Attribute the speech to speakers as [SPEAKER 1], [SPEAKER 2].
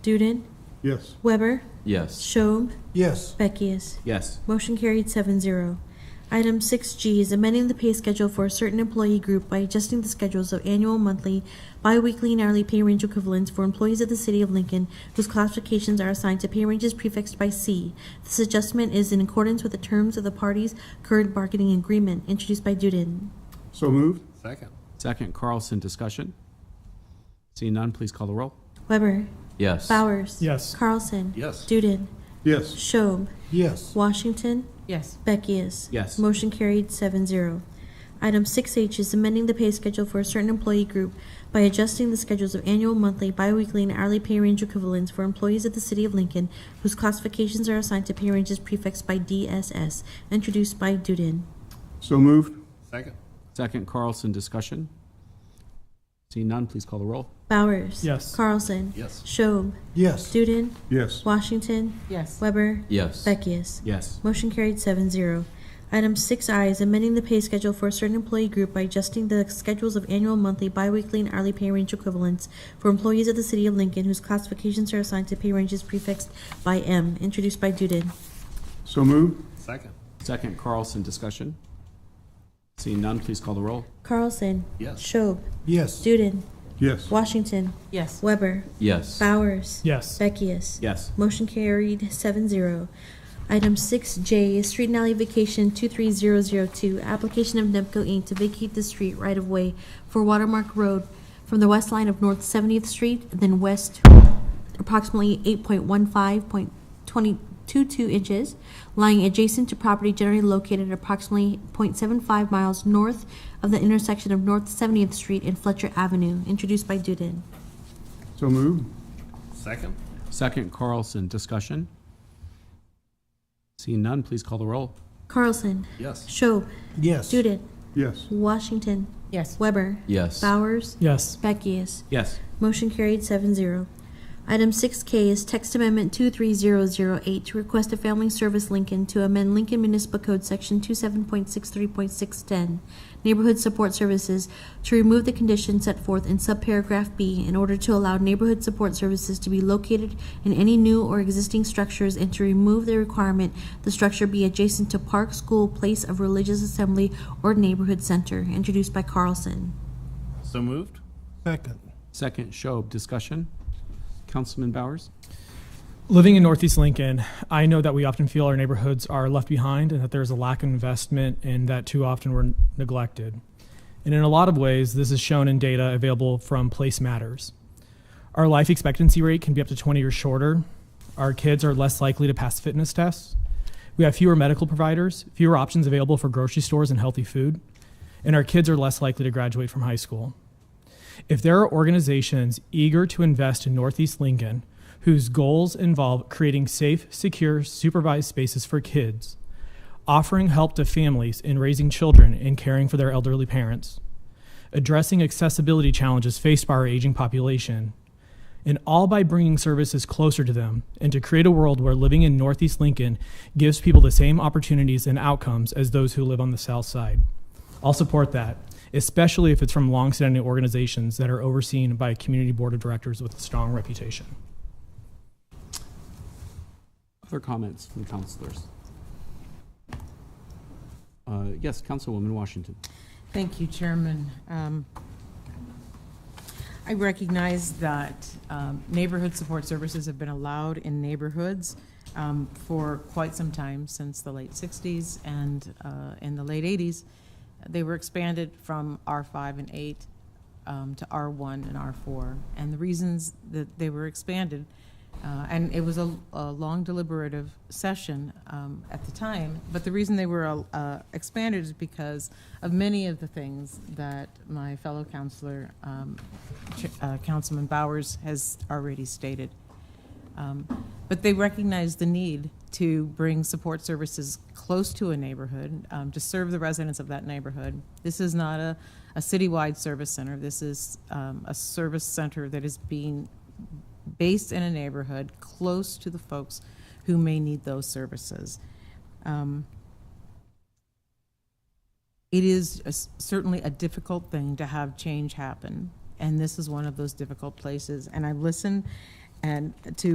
[SPEAKER 1] Duden,
[SPEAKER 2] Yes.
[SPEAKER 1] Weber,
[SPEAKER 3] Yes.
[SPEAKER 1] Schob,
[SPEAKER 2] Yes.
[SPEAKER 1] Beckius.
[SPEAKER 3] Yes.
[SPEAKER 1] Motion carried 7-0. Item six G is amending the pay schedule for a certain employee group by adjusting the schedules of annual, monthly, bi-weekly, and hourly pay range equivalents for employees of the City of Lincoln whose classifications are assigned to pay ranges prefixed by C. This adjustment is in accordance with the terms of the parties' current bargaining agreement, introduced by Duden.
[SPEAKER 2] So moved?
[SPEAKER 4] Second.
[SPEAKER 3] Second, Carlson, discussion? Seeing none, please call the roll.
[SPEAKER 1] Weber.
[SPEAKER 3] Yes.
[SPEAKER 1] Bowers.
[SPEAKER 2] Yes.
[SPEAKER 1] Carlson.
[SPEAKER 4] Yes.
[SPEAKER 1] Duden.
[SPEAKER 2] Yes.
[SPEAKER 1] Schob.
[SPEAKER 2] Yes.
[SPEAKER 1] Washington.
[SPEAKER 5] yes,
[SPEAKER 1] Beckius.
[SPEAKER 3] Yes.
[SPEAKER 1] Motion carried 7-0. Item six H is amending the pay schedule for a certain employee group by adjusting the schedules of annual, monthly, biweekly, and hourly pay range equivalents for employees of the City of Lincoln whose classifications are assigned to pay ranges prefixed by DSS, introduced by Duden.
[SPEAKER 2] So moved?
[SPEAKER 4] Second.
[SPEAKER 3] Second, Carlson, discussion? Seeing none, please call the roll.
[SPEAKER 1] Bowers.
[SPEAKER 2] Yes.
[SPEAKER 1] Carlson.
[SPEAKER 4] Yes.
[SPEAKER 1] Schob.
[SPEAKER 2] Yes.
[SPEAKER 1] Duden.
[SPEAKER 2] Yes.
[SPEAKER 1] Washington.
[SPEAKER 5] yes,
[SPEAKER 1] Weber.
[SPEAKER 3] Yes.
[SPEAKER 1] Beckius.
[SPEAKER 3] Yes.
[SPEAKER 1] Motion carried 7-0. Item six I is amending the pay schedule for a certain employee group by adjusting the schedules of annual, monthly, biweekly, and hourly pay range equivalents for employees of the City of Lincoln whose classifications are assigned to pay ranges prefixed by M, introduced by Duden.
[SPEAKER 2] So moved?
[SPEAKER 4] Second.
[SPEAKER 3] Second, Carlson, discussion? Seeing none, please call the roll.
[SPEAKER 1] Carlson.
[SPEAKER 4] Yes.
[SPEAKER 1] Schob.
[SPEAKER 2] Yes.
[SPEAKER 1] Duden.
[SPEAKER 2] Yes.
[SPEAKER 1] Washington.
[SPEAKER 5] yes,
[SPEAKER 1] Weber.
[SPEAKER 3] Yes.
[SPEAKER 1] Bowers.
[SPEAKER 2] Yes.
[SPEAKER 1] Beckius.
[SPEAKER 3] Yes.
[SPEAKER 1] Motion carried 7-0. Item six J is Street and Alley Vacation two three zero zero two, application of NEPCO Inc. to vacate the street right of way for Watermark Road from the west line of North Seventieth Street, then west approximately eight point one five point twenty two two inches, lying adjacent to property generally located approximately 0.75 miles north of the intersection of North Seventieth Street and Fletcher Avenue, introduced by Duden.
[SPEAKER 2] So moved?
[SPEAKER 4] Second.
[SPEAKER 3] Second, Carlson, discussion? Seeing none, please call the roll.
[SPEAKER 1] Carlson.
[SPEAKER 4] Yes.
[SPEAKER 1] Schob.
[SPEAKER 2] Yes.
[SPEAKER 1] Duden.
[SPEAKER 2] Yes.
[SPEAKER 1] Washington.
[SPEAKER 5] yes,
[SPEAKER 1] Weber.
[SPEAKER 3] Yes.
[SPEAKER 1] Bowers.
[SPEAKER 2] Yes.
[SPEAKER 1] Beckius.
[SPEAKER 3] Yes.
[SPEAKER 1] Motion carried 7-0. Item six K is text amendment two three zero zero eight to request a family service Lincoln to amend Lincoln Municipal Code section two seven point six three point six ten, neighborhood support services, to remove the condition set forth in subparagraph B in order to allow neighborhood support services to be located in any new or existing structures and to remove the requirement the structure be adjacent to park, school, place of religious assembly, or neighborhood center, introduced by Carlson.
[SPEAKER 4] So moved?
[SPEAKER 2] Second.
[SPEAKER 3] Second, Schob, discussion? Councilman Bowers?
[SPEAKER 6] Living in Northeast Lincoln, I know that we often feel our neighborhoods are left behind and that there's a lack of investment and that too often we're neglected. And in a lot of ways, this is shown in data available from Place Matters. Our life expectancy rate can be up to 20 years shorter. Our kids are less likely to pass fitness tests. We have fewer medical providers, fewer options available for grocery stores and healthy food, and our kids are less likely to graduate from high school. If there are organizations eager to invest in Northeast Lincoln whose goals involve creating safe, secure, supervised spaces for kids, offering help to families in raising children and caring for their elderly parents, addressing accessibility challenges faced by our aging population, and all by bringing services closer to them and to create a world where living in Northeast Lincoln gives people the same opportunities and outcomes as those who live on the South Side. I'll support that, especially if it's from longstanding organizations that are overseen by a community board of directors with a strong reputation.
[SPEAKER 3] Other comments from councilors? Uh, Yes, Councilwoman Washington.
[SPEAKER 5] thank you, Chairman. Um, I recognize that um, neighborhood support services have been allowed in neighborhoods um, for quite some time, since the late 60s and uh, in the late 80s. They were expanded from R5 and 8 um, to R1 and R4. And the reasons that they were expanded, uh, and it was a a long deliberative session um, at the time, but the reason they were uh, expanded is because of many of the things that my fellow counselor um, Ch- uh, Councilman Bowers has already stated. Um, But they recognize the need to bring support services close to a neighborhood, um, to serve the residents of that neighborhood. This is not a, a citywide service center. This is um, a service center that is being based in a neighborhood, close to the folks who may need those services. Um, It is a s- certainly a difficult thing to have change happen, and this is one of those difficult places. And I listened and to